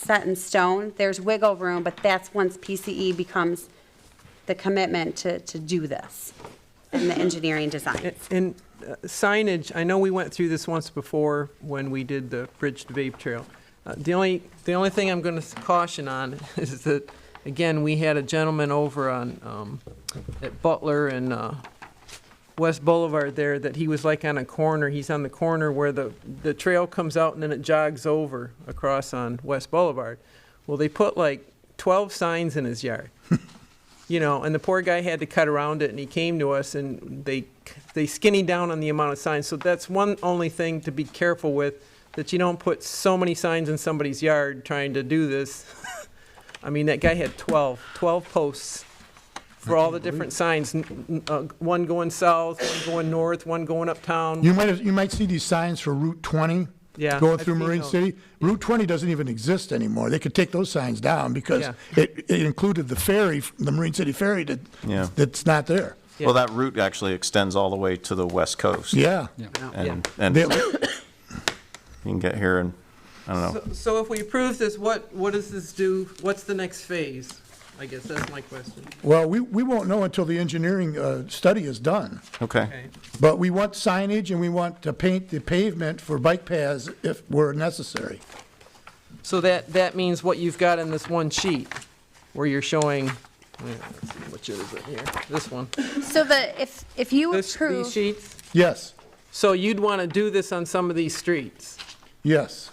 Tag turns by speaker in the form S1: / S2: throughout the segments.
S1: set in stone. There's wiggle room, but that's once PCE becomes the commitment to, to do this and the engineering design.
S2: And uh, signage, I know we went through this once before when we did the Bridge to Vape Trail. Uh, The only, the only thing I'm going to caution on is that, again, we had a gentleman over on, um, at Butler and uh, West Boulevard there, that he was like on a corner, he's on the corner where the, the trail comes out and then it jogs over across on West Boulevard. Well, they put like 12 signs in his yard you know, and the poor guy had to cut around it, and he came to us, and they, they skinny down on the amount of signs, so that's one only thing to be careful with, that you don't put so many signs in somebody's yard trying to do this. I mean, that guy had 12, 12 posts for all the different signs, n- n- uh, one going south, one going north, one going uptown,
S3: You might, you might see these signs for Route 20.
S2: Yeah,
S3: Going
S2: I've
S3: through
S2: seen
S3: Marine
S2: those.
S3: City. Route 20 doesn't even exist anymore. They could take those signs down because
S2: Yeah.
S3: it, it included the ferry, the Marine City ferry that,
S4: Yeah.
S3: that's not there.
S4: Well, that route actually extends all the way to the west coast.
S3: Yeah.
S4: And, and
S3: They-
S4: you can get here and, I don't know,
S2: So- So if we approve this, what, what does this do, what's the next phase? I guess that's my question.
S3: Well, we, we won't know until the engineering, uh, study is done.
S4: okay.
S2: Okay.
S3: But we want signage and we want to paint the pavement for bike paths if were necessary.
S2: So that, that means what you've got in this one sheet, where you're showing, yeah, let's see, which is it here, this one.
S1: So the, if, if you
S2: This, these
S1: approve,
S2: sheets,
S3: Yes,
S2: so you'd want to do this on some of these streets.
S3: yes.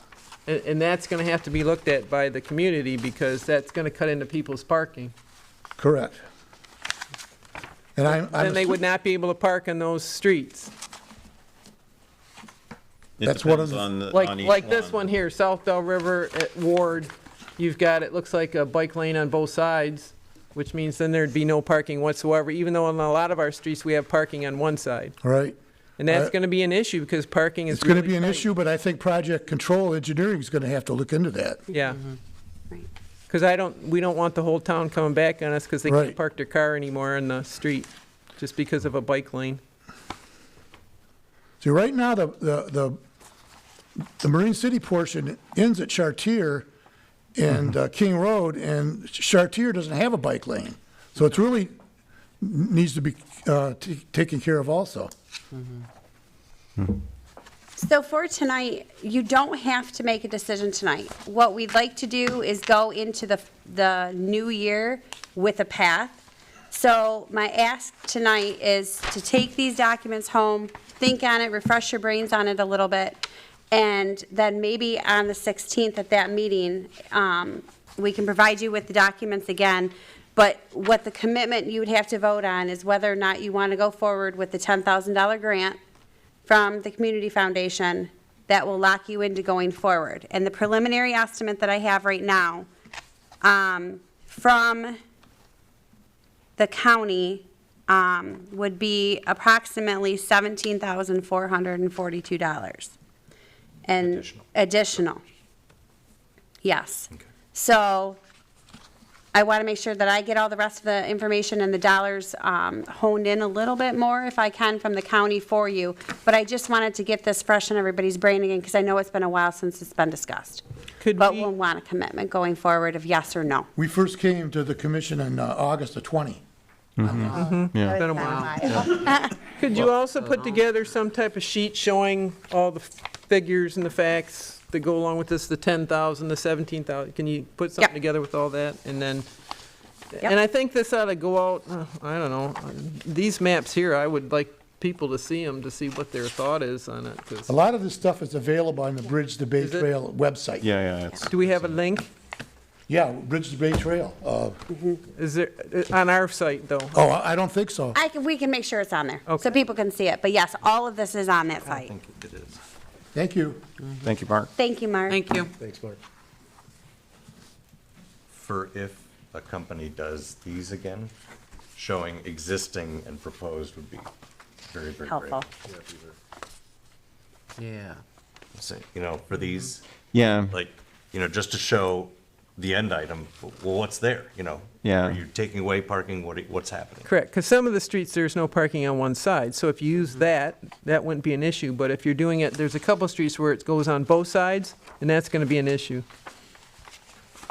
S2: And, and that's going to have to be looked at by the community, because that's going to cut into people's parking.
S3: Correct. And I'm,
S2: Then they
S3: I'm,
S2: would not be able to park on those streets.
S4: It
S3: That's one of
S4: depends
S3: the-
S4: on the-
S2: Like,
S4: on each
S2: like this
S4: one.
S2: one here, South Bell River at Ward, you've got, it looks like a bike lane on both sides, which means then there'd be no parking whatsoever, even though on a lot of our streets, we have parking on one side.
S3: all right.
S2: And that's
S3: Uh,
S2: going to be an issue because parking is
S3: It's going to
S2: really
S3: be an
S2: tight.
S3: issue, but I think project control engineering is going to have to look into that.
S2: Yeah,
S1: Right.
S2: because I don't, we don't want the whole town coming back on us because they can't
S3: Right.
S2: park their car anymore on the street just because of a bike lane.
S3: See, right now, the, the, the, the Marine City portion ends at Chartier and
S2: Mm-hmm.
S3: uh, King Road, and Chartier doesn't have a bike lane. So it's really n- needs to be, uh, t- taken care of also.
S1: so for tonight, you don't have to make a decision tonight. What we'd like to do is go into the, the new year with a path. So my ask tonight is to take these documents home, think on it, refresh your brains on it a little bit, and then maybe on the 16th at that meeting, um, we can provide you with the documents again, but what the commitment you would have to vote on is whether or not you want to go forward with the $10,000 grant from the Community Foundation that will lock you into going forward. And the preliminary estimate that I have right now, um, from the county, um, would be approximately seventeen thousand four hundred and forty-two dollars. And additional. Yes. So I want to make sure that I get all the rest of the information and the dollars um, honed in a little bit more, if I can, from the county for you. But I just wanted to get this fresh in everybody's brain again, because I know it's been a while since it's been discussed.
S2: Could
S1: But
S2: we-
S1: we'll want a commitment going forward of yes or no.
S3: We first came to the commission on, uh, August the 20.
S4: Yeah.
S2: Been a while. Could you also put together some type of sheet showing all the figures and the facts that go along with this, the 10,000, the 17,000? Can you put something
S1: Yep.
S2: together with all that? And then,
S1: Yep.
S2: and I think this ought to go out, uh, I don't know, uh, these maps here, I would like people to see them, to see what their thought is on it. 'cause-
S3: A lot of this stuff is available on the Bridge to Bay
S2: Is it?
S3: Trail website.
S4: Yeah, yeah, it's,
S2: Do we have a link?
S3: Yeah, Bridge to Bay Trail. Uh,
S2: Is there, uh, on our site, though?
S3: oh, I I don't think so.
S1: I can, we can make sure it's on there, so
S2: Okay.
S1: people can see it. But yes, all of this is on that site.
S3: Thank you.
S4: thank you, Mark.
S1: Thank you, Mark.
S2: Thank you.
S3: Thanks, Mark.
S5: for if a company does these again, showing existing and proposed would be very, very great.
S1: Helpful.
S5: Yeah. So, You know, for these,
S4: Yeah,
S5: like, you know, just to show the end item, well, what's there, you know?
S4: Yeah.
S5: Are you taking away parking? What, what's happening?
S2: Correct, because some of the streets, there's no parking on one side, so if you use that, that wouldn't be an issue, but if you're doing it, there's a couple of streets where it goes on both sides, and that's gonna be an issue.